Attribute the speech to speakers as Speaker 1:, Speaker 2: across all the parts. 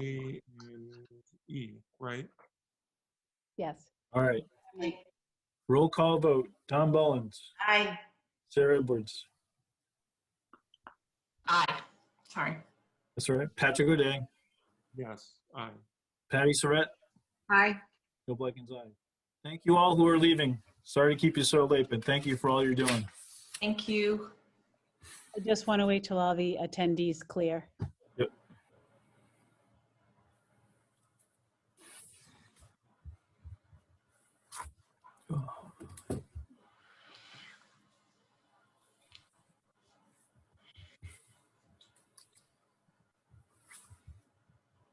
Speaker 1: E, right?
Speaker 2: Yes.
Speaker 3: All right, roll call vote. Tom Bollins,
Speaker 4: Aye.
Speaker 3: Sarah Edwards,
Speaker 5: Aye, sorry.
Speaker 3: that's all right, Patrick O'Day,
Speaker 1: Yes, aye.
Speaker 3: Patty Surratt,
Speaker 4: Aye.
Speaker 3: Bill Blackens, aye. Thank you all who are leaving. Sorry to keep you so late, but thank you for all you're doing.
Speaker 5: Thank you.
Speaker 2: I just want to wait till all the attendees clear.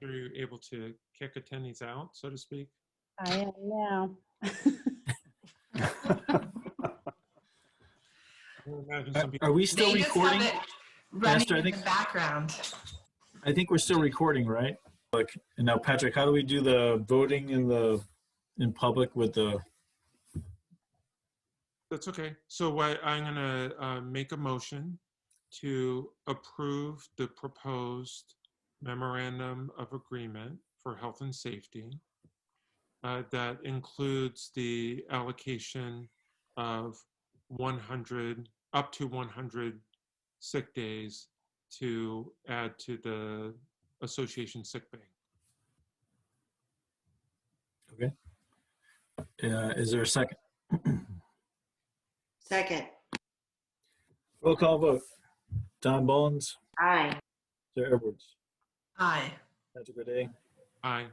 Speaker 1: Are you able to kick attendees out, so to speak?
Speaker 2: I am now.
Speaker 1: I would imagine
Speaker 3: Are-
Speaker 1: some people-
Speaker 3: Are we still
Speaker 5: They just have
Speaker 3: recording?
Speaker 5: it
Speaker 3: Esther, I
Speaker 5: Running in the
Speaker 3: think-
Speaker 5: background.
Speaker 3: I think we're still recording, right? Like, and now Patrick, how do we do the voting in the, in public with the,
Speaker 1: That's okay. So what, I'm gonna uh, make a motion to approve the proposed memorandum of agreement for health and safety. uh, That includes the allocation of 100, up to 100 sick days to add to the association sick bank.
Speaker 3: uh, is there a second?
Speaker 4: Second.
Speaker 3: Roll call vote. Tom Bollins,
Speaker 4: Aye.
Speaker 3: Sarah Edwards,
Speaker 5: Aye.
Speaker 3: Patrick O'Day,
Speaker 1: Aye.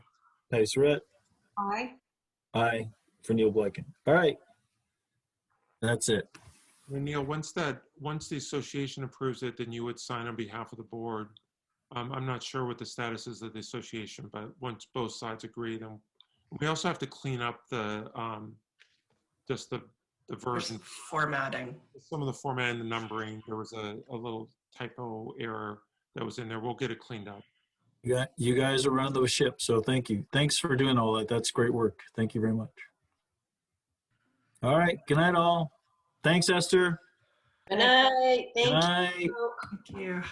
Speaker 3: Patty Surratt,
Speaker 4: Aye.
Speaker 3: aye for Neil Blacken. All right. That's it.
Speaker 1: And Neil, once that, once the association approves it, then you would sign on behalf of the board. Um, I'm not sure what the status is of the association, but once both sides agree, then we also have to clean up the, um, just the, the version,
Speaker 5: Formatting.
Speaker 1: some of the format and the numbering. There was a, a little typo error that was in there. We'll get it cleaned up.
Speaker 3: You got, you guys are running the ship, so thank you. Thanks for doing all that. That's great work. Thank you very much. All right. Good night, all. Thanks, Esther.
Speaker 4: Good night.
Speaker 3: Good
Speaker 4: Thank
Speaker 3: night.
Speaker 4: you.
Speaker 5: Thank you.